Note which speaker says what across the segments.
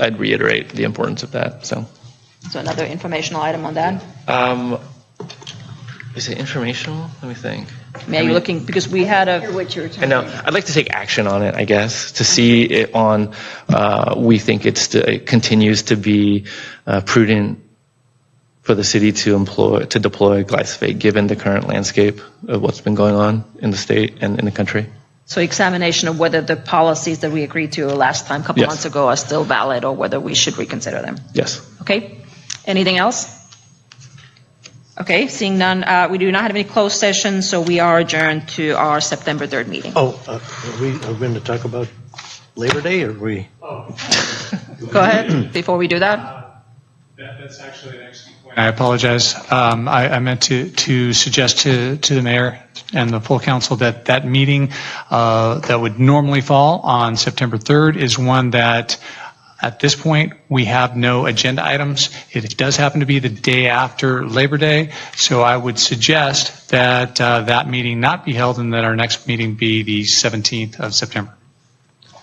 Speaker 1: I'd reiterate the importance of that, so.
Speaker 2: So another informational item on that?
Speaker 1: Um, Is it informational? Let me think.
Speaker 2: I mean, are you looking, because we had a,
Speaker 3: What you were talking
Speaker 1: And now, I'd like to take action on it, I guess, to see it on, uh, we think it's, to- it continues to be uh, prudent for the city to employ, to deploy glyphosate, given the current landscape of what's been going on in the state and in the country.
Speaker 2: so examination of whether the policies that we agreed to last time, a couple
Speaker 1: Yes.
Speaker 2: months ago, are still valid or whether we should reconsider them.
Speaker 1: Yes.
Speaker 2: Okay? Anything else? Okay, seeing none, uh, we do not have any closed sessions, so we are adjourned to our September 3rd meeting.
Speaker 4: Oh, uh, are we, are we going to talk about Labor Day, or are we?
Speaker 5: Oh,
Speaker 2: Go ahead, before we do that.
Speaker 5: That, that's actually an excellent point. I apologize. Um, I, I meant to, to suggest to, to the mayor and the full council that that meeting, uh, that would normally fall on September 3rd is one that, at this point, we have no agenda items. It does happen to be the day after Labor Day, so I would suggest that, uh, that meeting not be held and that our next meeting be the 17th of September.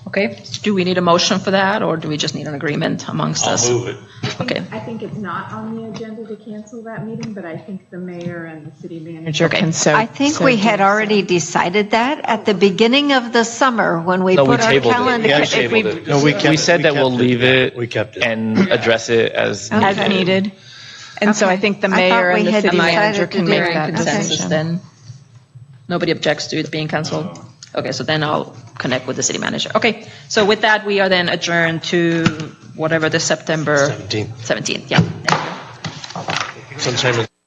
Speaker 2: Okay, do we need a motion for that, or do we just need an agreement amongst us? I'll move it. Okay.
Speaker 3: I think it's not on the agenda to cancel that meeting, but I think the mayor and the city manager
Speaker 2: Okay.
Speaker 3: can so.
Speaker 6: I think
Speaker 3: so
Speaker 6: we
Speaker 3: do
Speaker 6: had
Speaker 3: so.
Speaker 6: already decided that at the beginning of the summer when we
Speaker 1: No, we
Speaker 6: put our
Speaker 1: tabled
Speaker 6: calendar.
Speaker 1: it.
Speaker 6: if we-
Speaker 4: No, we kept
Speaker 1: We
Speaker 4: it.
Speaker 1: said
Speaker 4: We
Speaker 1: that we'll
Speaker 4: kept it.
Speaker 1: leave it.
Speaker 4: We kept it.
Speaker 1: And address it as.
Speaker 6: Okay.
Speaker 7: as needed. And so I think the
Speaker 6: I thought
Speaker 7: mayor
Speaker 6: we
Speaker 7: and the
Speaker 6: had
Speaker 7: city
Speaker 6: decided
Speaker 7: manager
Speaker 6: to
Speaker 7: can
Speaker 6: do
Speaker 7: make
Speaker 6: it.
Speaker 7: that
Speaker 6: Okay.
Speaker 2: consensus
Speaker 7: decision.
Speaker 2: then? Nobody objects to it being canceled? Okay, so then I'll connect with the city manager. Okay, so with that, we are then adjourned to whatever the September
Speaker 4: 17th,
Speaker 2: 17th, yeah.
Speaker 4: sometime in